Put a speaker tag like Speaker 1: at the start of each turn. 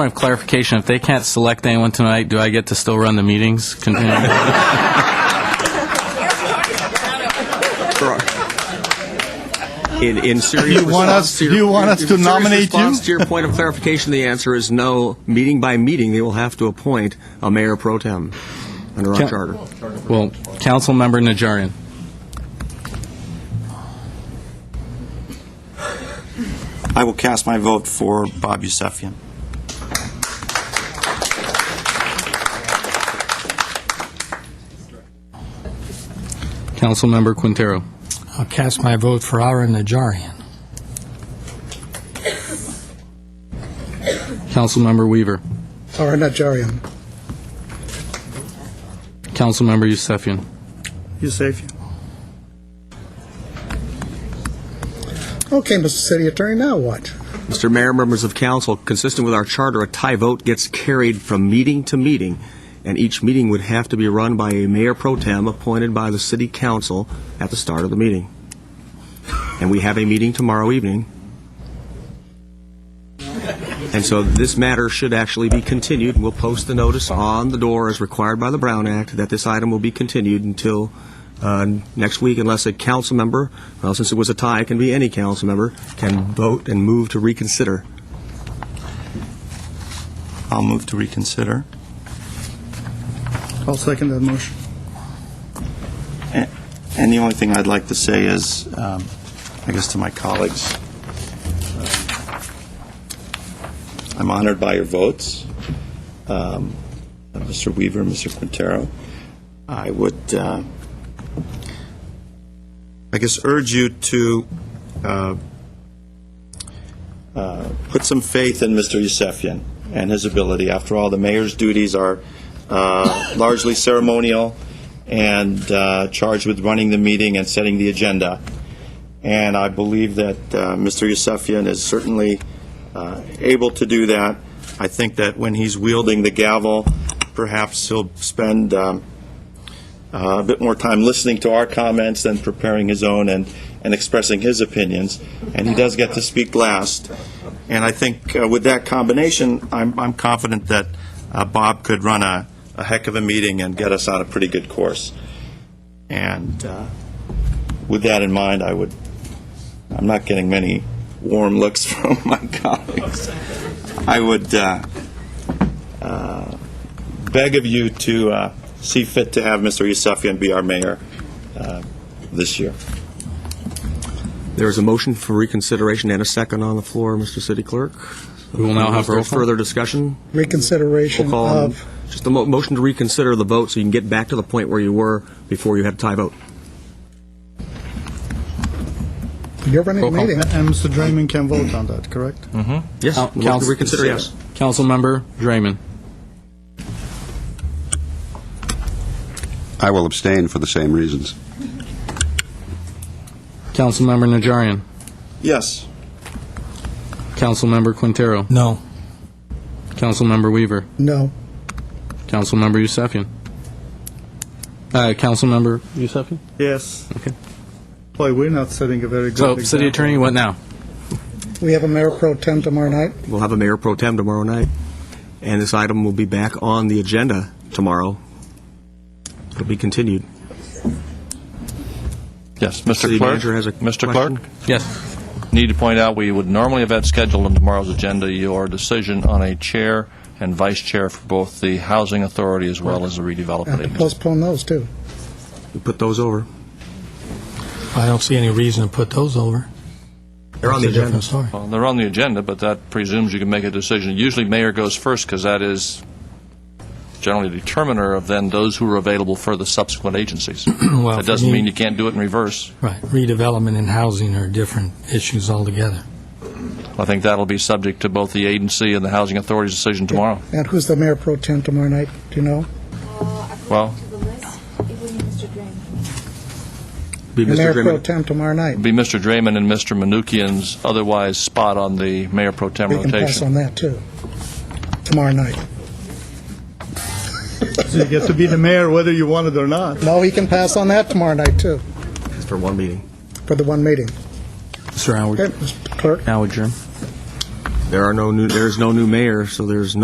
Speaker 1: Point of clarification, if they can't select anyone tonight, do I get to still run the meetings? Continue.
Speaker 2: In, in serious
Speaker 3: You want
Speaker 2: response
Speaker 3: us-
Speaker 2: to your-
Speaker 3: you want us
Speaker 2: in
Speaker 3: to
Speaker 2: serious
Speaker 3: nominate you?
Speaker 2: response to your point of clarification, the answer is no. Meeting by meeting, they will have to appoint a mayor pro tem under our
Speaker 1: Can-
Speaker 2: charter.
Speaker 1: Well, Councilmember Najarian.
Speaker 4: I will cast my vote for Bob Yusefian.
Speaker 1: Councilmember Quintero.
Speaker 5: I'll cast my vote for Aaron Najarian.
Speaker 1: Councilmember Weaver.
Speaker 6: Ara Najarian.
Speaker 1: Councilmember Yusefian.
Speaker 6: Yusefian. Okay, Mr. City Attorney, now what?
Speaker 2: Mr. Mayor, members of council, consistent with our charter, a tie vote gets carried from meeting to meeting, and each meeting would have to be run by a mayor pro tem appointed by the city council at the start of the meeting. And we have a meeting tomorrow evening. And so this matter should actually be continued, and we'll post the notice on the door as required by the Brown Act that this item will be continued until uh, next week unless a council member, well, since it was a tie, it can be any council member, can vote and move to reconsider.
Speaker 4: I'll move to reconsider.
Speaker 6: I'll second that motion.
Speaker 4: A- And the only thing I'd like to say is, um, I guess to my colleagues, um, I'm honored by your votes, um, Mr. Weaver, Mr. Quintero. I would, uh, I guess, urge you to uh, uh, put some faith in Mr. Yusefian and his ability. After all, the mayor's duties are uh, largely ceremonial and uh, charged with running the meeting and setting the agenda. And I believe that uh, Mr. Yusefian is certainly uh, able to do that. I think that when he's wielding the gavel, perhaps he'll spend um, uh, a bit more time listening to our comments than preparing his own and, and expressing his opinions. And he does get to speak last. And I think uh, with that combination, I'm, I'm confident that uh, Bob could run a, a heck of a meeting and get us on a pretty good course. And uh, with that in mind, I would, I'm not getting many warm looks from my colleagues. I would uh, uh, beg of you to uh, see fit to have Mr. Yusefian be our mayor uh, this year.
Speaker 2: There is a motion for reconsideration and a second on the floor, Mr. City Clerk.
Speaker 1: We will now have roll
Speaker 2: Is there
Speaker 1: call.
Speaker 2: further discussion? We'll
Speaker 6: Reconsideration
Speaker 2: call on-
Speaker 6: of,
Speaker 2: just a mo- motion to reconsider the vote so you can get back to the point where you were before you had a tie vote.
Speaker 6: you're running
Speaker 1: Roll
Speaker 6: the
Speaker 1: call.
Speaker 6: meeting.
Speaker 7: And Mr. Draymond can vote on that, correct?
Speaker 1: Mm.
Speaker 2: Yes,
Speaker 1: Coun-
Speaker 2: motion to Uh, reconsider, yes.
Speaker 1: Councilmember Draymond.
Speaker 8: I will abstain for the same reasons.
Speaker 1: Councilmember Najarian.
Speaker 4: Yes.
Speaker 1: Councilmember Quintero.
Speaker 5: No.
Speaker 1: Councilmember Weaver.
Speaker 6: No.
Speaker 1: Councilmember Yusefian. Uh, Councilmember Yusefian?
Speaker 7: Yes.
Speaker 1: Okay.
Speaker 7: Boy, we're not setting a very good
Speaker 1: So,
Speaker 7: example.
Speaker 1: city attorney, what now?
Speaker 6: We have a mayor pro tem tomorrow night.
Speaker 2: We'll have a mayor pro tem tomorrow night, and this item will be back on the agenda tomorrow. It'll be continued.
Speaker 9: Yes, Mr.
Speaker 2: City
Speaker 9: Clerk.
Speaker 2: manager has a
Speaker 9: Mr.
Speaker 2: question.
Speaker 9: Clerk,
Speaker 1: Yes.
Speaker 9: need to point out, we would normally have had scheduled on tomorrow's agenda your decision on a chair and vice chair for both the Housing Authority as well as the
Speaker 6: I have
Speaker 9: Redevelopment
Speaker 6: to
Speaker 9: Agency.
Speaker 6: postpone those, too.
Speaker 2: We put those over.
Speaker 5: I don't see any reason to put those over.
Speaker 2: They're on the
Speaker 5: It's a
Speaker 2: agenda.
Speaker 5: different story.
Speaker 9: Well, They're on the agenda, but that presumes you can make a decision. Usually mayor goes first because that is generally the determiner of then those who are available for the subsequent agencies.
Speaker 5: Well,
Speaker 9: That
Speaker 5: for
Speaker 9: doesn't
Speaker 5: me-
Speaker 9: mean you can't do it in reverse.
Speaker 5: Right, redevelopment and housing are different issues altogether.
Speaker 9: I think that'll be subject to both the agency and the Housing Authority's decision tomorrow.
Speaker 6: And who's the mayor pro tem tomorrow night? Do you know?
Speaker 9: Well-
Speaker 10: According to the list, it would be Mr. Drain.
Speaker 2: Be
Speaker 6: The
Speaker 2: Mr.
Speaker 6: mayor pro
Speaker 2: Draymond.
Speaker 6: tem tomorrow night.
Speaker 9: be Mr. Draymond and Mr. Manukian's otherwise spot on the mayor pro tem
Speaker 6: We can pass on
Speaker 9: rotation.
Speaker 6: that, too, tomorrow night.
Speaker 7: So you get to be the mayor whether you want it or not.
Speaker 6: No, we can pass on that tomorrow night, too,
Speaker 2: Just for one meeting.
Speaker 6: for the one meeting.
Speaker 1: Sir,
Speaker 6: Okay, Mr. Clerk?
Speaker 1: now adjourn.
Speaker 2: There are no new, there's no new mayor, so there's no